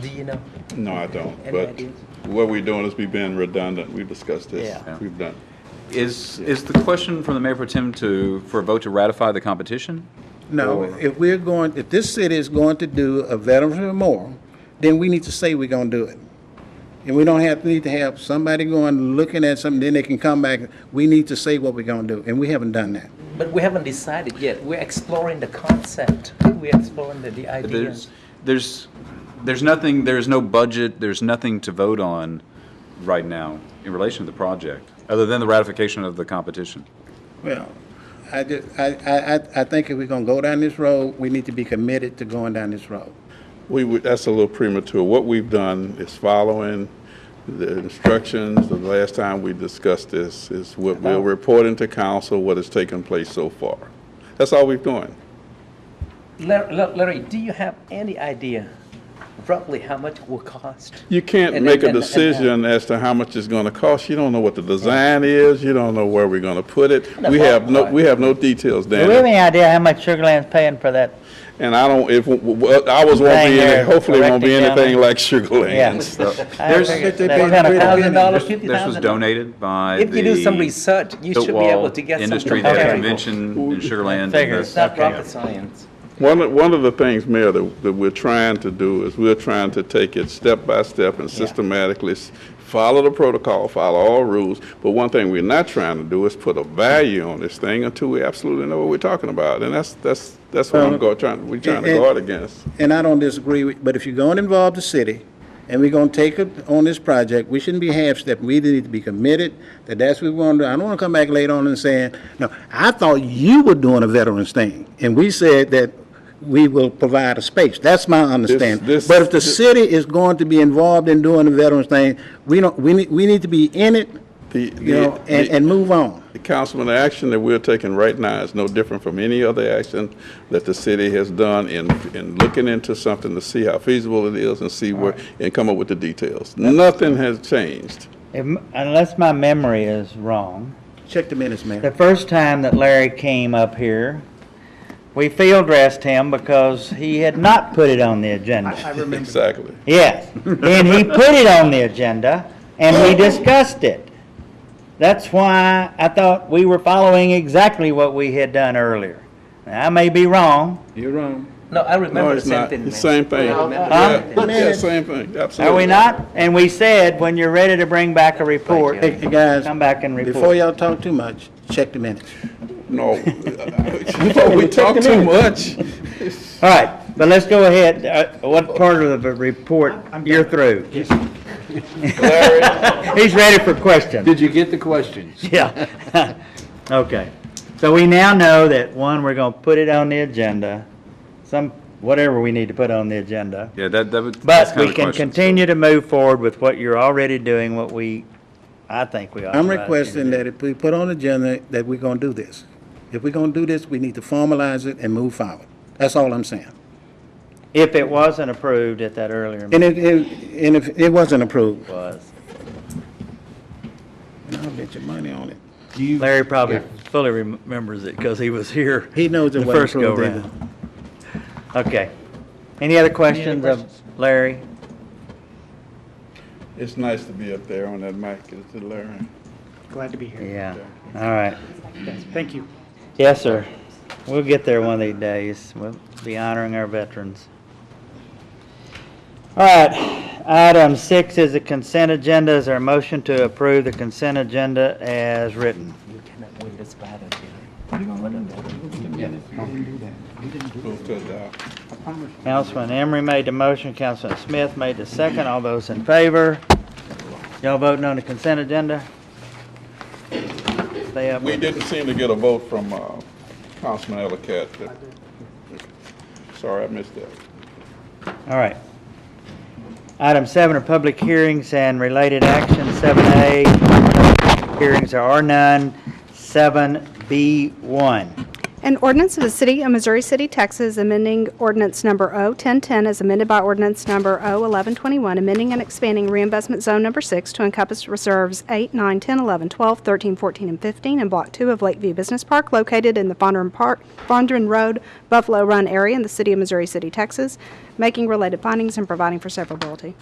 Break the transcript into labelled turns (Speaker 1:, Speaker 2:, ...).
Speaker 1: Do you know?
Speaker 2: No, I don't.
Speaker 1: Any
Speaker 2: But
Speaker 1: ideas?
Speaker 2: what we're doing is we've been redundant. We've discussed this.
Speaker 1: Yeah.
Speaker 2: We've done.
Speaker 3: Is, is the question from the mayor pro tem to, for a vote to ratify the competition?
Speaker 4: No, if we're going, if this city is going to do a Veterans Memorial, then we need to say we're gonna do it. And we don't have, need to have somebody going, looking at something, then they can come back, we need to say what we're gonna do, and we haven't done that.
Speaker 1: But we haven't decided yet. We're exploring the concept. We're exploring the, the idea.
Speaker 3: There's, there's, there's nothing, there's no budget, there's nothing to vote on right now in relation to the project, other than the ratification of the competition.
Speaker 4: Well, I just, I, I, I- I think if we're gonna go down this road, we need to be committed to going down this road.
Speaker 2: We, would- that's a little premature. What we've done is following the instructions. The last time we discussed this is what we're reporting to council, what has taken place so far. That's all we've done.
Speaker 1: Larry, look, Larry, do you have any idea roughly how much it will cost?
Speaker 2: You can't
Speaker 1: And-
Speaker 2: make a
Speaker 1: and- and-
Speaker 2: decision as to how much it's gonna cost. You don't know what the design is. You don't know where we're gonna put it. We have no, we have no details,
Speaker 5: Do we have
Speaker 2: Danny.
Speaker 5: any idea how much Sugar Land's paying for that?
Speaker 2: And I don't, if, w- w- ours won't
Speaker 5: Dang,
Speaker 2: be, any-
Speaker 5: they're
Speaker 2: hopefully it won't be
Speaker 5: erecting down
Speaker 2: anything
Speaker 5: there.
Speaker 2: like Sugar Land.
Speaker 1: Uh,
Speaker 3: So,
Speaker 5: I
Speaker 3: There's-
Speaker 5: figured
Speaker 4: They
Speaker 5: that's
Speaker 4: paid
Speaker 5: kind of
Speaker 4: three
Speaker 5: crazy.
Speaker 1: Thousand dollars, fifty
Speaker 3: This was
Speaker 1: thousand?
Speaker 3: donated by the.
Speaker 1: If you do some research, you should be
Speaker 3: Built-Wall
Speaker 1: able to get some
Speaker 3: Industry, they had a
Speaker 5: comparable.
Speaker 3: convention in Sugar Land. and
Speaker 5: Figures.
Speaker 3: the-
Speaker 1: It's not
Speaker 5: Okay.
Speaker 1: rocket science.
Speaker 2: One, of- one of the things, Mayor, that, that we're trying to do is we're trying to take it step by step and systematically s- follow the protocol, follow all rules. But one thing we're not trying to do is put a value on this thing until we absolutely know what we're talking about. And that's, that's, that's what I'm go, trying, we're trying to
Speaker 4: it-
Speaker 2: guard against.
Speaker 4: And I don't disagree with, but if you're gonna involve the city, and we're gonna take it on this project, we shouldn't be half-stepping, we need to be committed, that that's what we wanna do. I don't wanna come back later on and saying, no, I thought you were doing a veterans thing, and we said that we will provide a space, that's my understanding.
Speaker 2: this-
Speaker 4: But if the
Speaker 2: this-
Speaker 4: city is going to be involved in doing the veterans thing, we don't, we need, we need to be in it,
Speaker 2: The-
Speaker 4: you
Speaker 2: the-
Speaker 4: know, and,
Speaker 2: the-
Speaker 4: and move on.
Speaker 2: Councilman, the action that we're taking right now is no different from any other action that the city has done in, in looking into something to see how feasible it is and see where, and come up with the details. Nothing has changed.
Speaker 5: If m- Unless my memory is wrong,
Speaker 4: Check the minutes, man.
Speaker 5: the first time that Larry came up here, we field dressed him because he had not put it on the agenda.
Speaker 2: Exactly.
Speaker 5: Yes, then he put it on the agenda and we discussed it. That's why I thought we were following exactly what we had done earlier. Now, I may be wrong.
Speaker 4: You're wrong.
Speaker 1: No, I
Speaker 2: No,
Speaker 1: remember the
Speaker 2: it's
Speaker 1: same
Speaker 2: not.
Speaker 1: thing.
Speaker 2: It's
Speaker 1: man.
Speaker 2: same thing. Yeah, yeah, same thing,
Speaker 5: Are
Speaker 2: absolutely.
Speaker 5: we not? And we said, when you're ready to bring back a report,
Speaker 4: Hey, hey, guys.
Speaker 5: Come back and report.
Speaker 4: Before y'all talk too much, check the minutes.
Speaker 2: No. We thought we talked too much.
Speaker 5: All right, but let's go ahead. Uh, What part of the report? You're through. He's ready for questions.
Speaker 6: Did you get the questions?
Speaker 5: Yeah. Okay. So we now know that, one, we're going to put it on the agenda, some, whatever we need to put on the agenda.
Speaker 3: Yeah, that, that would. that's
Speaker 5: But
Speaker 3: kind
Speaker 5: we
Speaker 3: of a
Speaker 5: can
Speaker 3: question.
Speaker 5: continue to move forward with what you're already doing, what we, I think we ought to.
Speaker 4: I'm requesting that if we put on the agenda, that we're gonna do this. If we're gonna do this, we need to formalize it and move forward. That's all I'm saying.
Speaker 5: If it wasn't approved at that earlier
Speaker 4: And
Speaker 5: meeting
Speaker 4: if, if- and if it wasn't approved,
Speaker 5: was,
Speaker 4: and I'll bet your money on it.
Speaker 5: Larry probably fully remembers it because he was here.
Speaker 4: He knows it
Speaker 5: the
Speaker 4: wasn't
Speaker 5: first go
Speaker 4: approved either.
Speaker 5: round. Okay. Any other questions of Larry?
Speaker 2: It's nice to be up there on that mic, it's alluring.
Speaker 7: Glad to be here.
Speaker 5: Yeah, all right.
Speaker 7: Thank you.
Speaker 5: Yes, sir. We'll get there one of these days. We'll be honoring our veterans. All right, item six is the consent agenda. Is there a motion to approve the consent agenda as written?
Speaker 1: You cannot win this battle, Jimmy.
Speaker 2: Move to adopt.
Speaker 5: Councilman Emery made the motion, Councilman Smith made the second. All those in favor? Y'all voting on the consent agenda? Stay up.
Speaker 2: We didn't seem to get a vote from uh, Councilman Ellicott. Sorry, I missed that.
Speaker 5: All right. Item seven are public hearings and related actions. Seven A, hearings there are none. Seven B one,
Speaker 6: An ordinance of the City of Missouri City, Texas, amending ordinance number O-1010 as amended by ordinance number O-1121, amending and expanding reinvestment zone number six to encompass reserves 8, 9, 10, 11, 12, 13, 14, and 15 in Block 2 of Lakeview Business Park located in the Fondren Park, Fondren Road, Buffalo Run area in the City of Missouri City, Texas, making related findings and providing for severability.